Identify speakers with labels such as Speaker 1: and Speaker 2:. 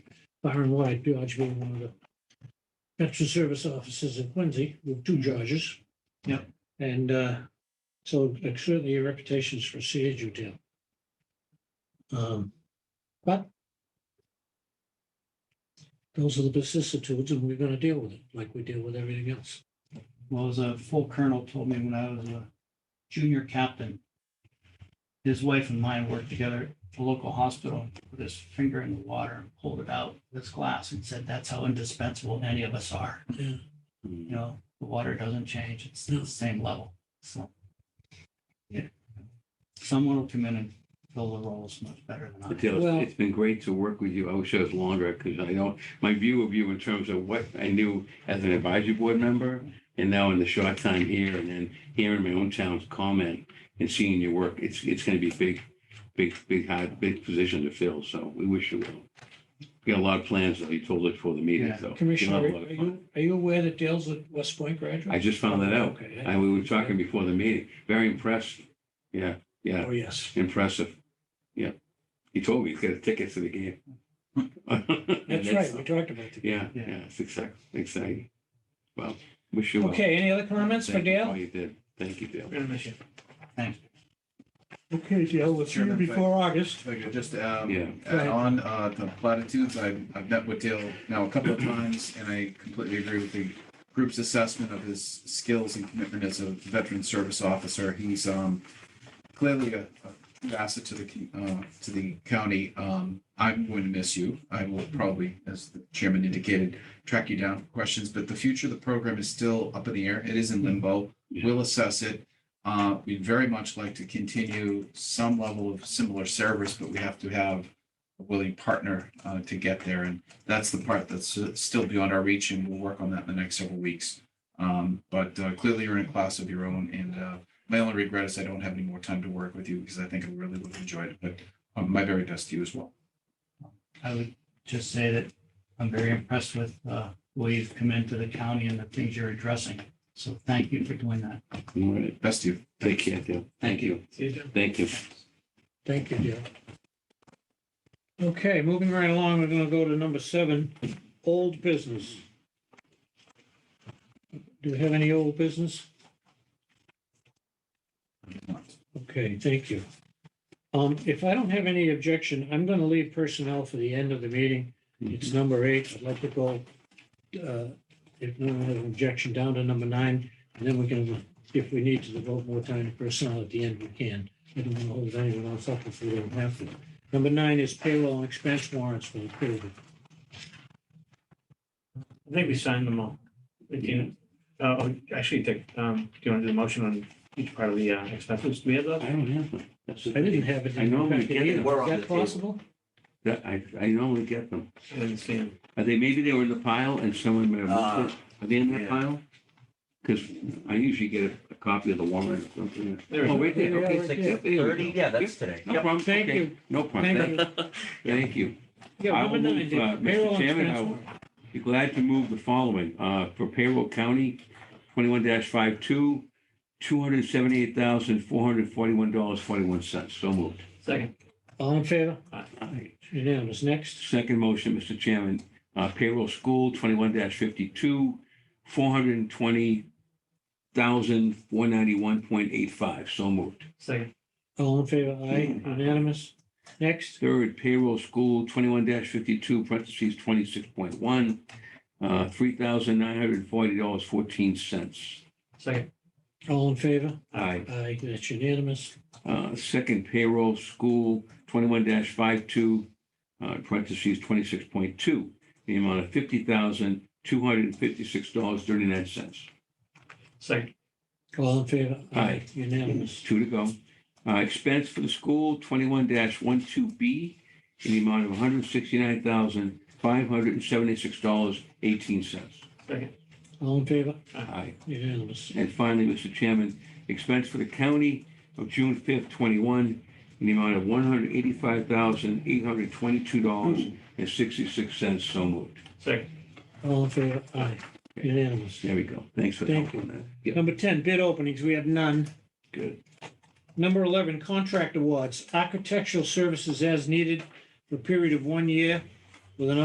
Speaker 1: far and wide, George being one of the veteran service officers in Quincy with two Georges.
Speaker 2: Yep.
Speaker 1: And uh, so like, certainly your reputation's preceded you, Tim. Um, But those are the vicissitudes and we're going to deal with it like we deal with everything else.
Speaker 2: Well, as a full colonel told me when I was a junior captain, his wife and mine worked together at the local hospital, put his finger in the water and pulled it out with his glass and said, that's how indispensable any of us are.
Speaker 1: Yeah.
Speaker 3: Mm.
Speaker 2: You know, the water doesn't change. It's
Speaker 1: No.
Speaker 2: the same level. So. yeah, Someone will come in and fill the roles much better than I.
Speaker 3: But Dale,
Speaker 1: Well-
Speaker 3: it's- it's been great to work with you. I wish I was longer because I don't, my view of you in terms of what I knew as an advisory board member and now in the short time here and then hearing my own town's comment and seeing your work, it's, it's going to be a big, big, big, hard, big position to fill. So we wish you well. We got a lot of plans though. You told us before the meeting,
Speaker 2: Yeah.
Speaker 3: so.
Speaker 1: Commissioner,
Speaker 3: you'll
Speaker 1: are
Speaker 3: have a lot of fun.
Speaker 1: you, are you aware that Dale's a West Point graduate?
Speaker 3: I just found that out.
Speaker 1: Okay.
Speaker 3: And we were talking before the meeting. Very impressed. Yeah, yeah.
Speaker 1: Oh, yes.
Speaker 3: Impressive. Yeah. He told me he's got a ticket to the game.
Speaker 1: That's right. We talked about that.
Speaker 3: Yeah,
Speaker 2: Yeah.
Speaker 3: yeah, it's exciting, exciting. Well, wish you well.
Speaker 1: Okay, any other comments for
Speaker 3: Thank you. Oh,
Speaker 1: Dale?
Speaker 3: you did. Thank you, Dale.
Speaker 2: Thanks.
Speaker 1: Okay, Dale, we'll see you
Speaker 4: Chairman, if I-
Speaker 1: before August.
Speaker 4: If I could just um,
Speaker 3: Yeah.
Speaker 4: add on uh, the platitudes, I've, I've met with Dale now a couple of times, and I completely agree with the group's assessment of his skills and commitment as a veteran service officer. He's um, clearly a a true asset to the, c- uh, to the county. Um, I'm going to miss you. I will probably, as the chairman indicated, track you down for questions, but the future of the program is still up in the air. It is in limbo.
Speaker 3: Yeah.
Speaker 4: We'll assess it. Uh, We'd very much like to continue some level of similar service, but we have to have a willing partner uh, to get there. And that's the part that's uh, still beyond our reach, and we'll work on that in the next several weeks. Um, But uh, clearly, you're in a class of your own, and uh, my only regret is I don't have any more time to work with you because I think I really would have enjoyed it, but uh, my very best to you as well.
Speaker 2: I would just say that I'm very impressed with uh, the way you've come into the county and the things you're addressing. So thank you for doing that.
Speaker 3: All right.
Speaker 4: Best to you.
Speaker 3: Take care, Dale. Thank you. Thank you.
Speaker 1: Thank you, Dale. Okay, moving right along, we're gonna go to number seven, old business. Do we have any old business? Okay, thank you. Um, if I don't have any objection, I'm gonna leave personnel for the end of the meeting. It's number eight. I'd like to go, uh, if no one has an objection, down to number nine. And then we can, if we need to devote more time to personnel at the end, we can. I don't want to hold anyone else up if we don't have to. Number nine is payroll and expense warrants for approval.
Speaker 5: I think we signed them all. We can- uh, oh, actually, Dick, um, do you want to do the motion on each part of the uh, expenses? Do we have
Speaker 3: I
Speaker 5: those?
Speaker 3: don't have one. That's the
Speaker 1: I didn't have it.
Speaker 3: I normally get
Speaker 1: Is
Speaker 3: them.
Speaker 6: We're on the
Speaker 1: that
Speaker 6: table.
Speaker 1: possible?
Speaker 3: That- I, I normally get them.
Speaker 5: I didn't see them.
Speaker 3: Are they, maybe they were in the pile and someone may have
Speaker 1: Ah,
Speaker 3: moved it? Are they in that
Speaker 6: yeah.
Speaker 3: pile? Because I usually get a- a copy of the warrant or something.
Speaker 5: There
Speaker 3: Oh,
Speaker 5: we
Speaker 3: right there.
Speaker 1: Yeah,
Speaker 3: Okay.
Speaker 1: right there.
Speaker 3: Yep, there we go.
Speaker 6: Thirty, yeah, that's
Speaker 3: Yep.
Speaker 6: today.
Speaker 3: No problem.
Speaker 1: Thank
Speaker 3: Okay.
Speaker 1: you.
Speaker 3: No problem.
Speaker 1: Thank
Speaker 3: Thank- Thank you.
Speaker 1: Yeah,
Speaker 3: I
Speaker 1: number
Speaker 3: will
Speaker 1: nine,
Speaker 3: move, uh,
Speaker 1: Dick,
Speaker 3: Mr.
Speaker 1: payroll and
Speaker 3: Chairman, I
Speaker 1: expense
Speaker 3: will-
Speaker 1: warrant.
Speaker 3: Be glad to move the following, uh, for payroll county, twenty-one 52 two hundred seventy-eight thousand, four hundred forty-one dollars, forty-one cents. So moved.
Speaker 5: Second,
Speaker 1: All in favor?
Speaker 3: Aye.
Speaker 1: Unanimous. Next,
Speaker 3: Second motion, Mr. Chairman, uh, payroll school, twenty-one fifty-two, four hundred and twenty thousand, four ninety-one point eight five. So moved.
Speaker 5: second,
Speaker 1: all in favor?
Speaker 3: Hmm.
Speaker 1: Aye. Unanimous. Next,
Speaker 3: Third, payroll school, twenty-one fifty-two, parentheses, twenty-six point one, uh, three thousand, nine hundred and forty dollars, fourteen cents.
Speaker 5: second,
Speaker 1: all in favor?
Speaker 3: Aye.
Speaker 1: Aye, that's unanimous.
Speaker 3: Uh, Second payroll, school, twenty-one 52 uh, parentheses, twenty-six point two, the amount of fifty thousand, two hundred and fifty-six dollars, thirty-nine cents.
Speaker 5: second,
Speaker 1: All in favor?
Speaker 3: Aye.
Speaker 1: Unanimous.
Speaker 3: Two to go. Uh, Expense for the school, twenty-one 12 B, in the amount of one hundred sixty-nine thousand, five hundred and seventy-six dollars, eighteen cents.
Speaker 5: second,
Speaker 1: All in favor?
Speaker 3: Aye.
Speaker 1: Unanimous.
Speaker 3: And finally, Mr. Chairman, expense for the county of June fifth, twenty-one, in the amount of one hundred eighty-five thousand, eight hundred twenty-two dollars and sixty-six cents. So moved.
Speaker 5: second,
Speaker 1: All in favor? Aye. Unanimous.
Speaker 3: There we go. Thanks for
Speaker 1: Thank
Speaker 3: helping that. Yeah,
Speaker 1: Number 10, bid openings. We have none.
Speaker 3: good.
Speaker 1: Number 11, contract awards, architectural services as needed for a period of one year with an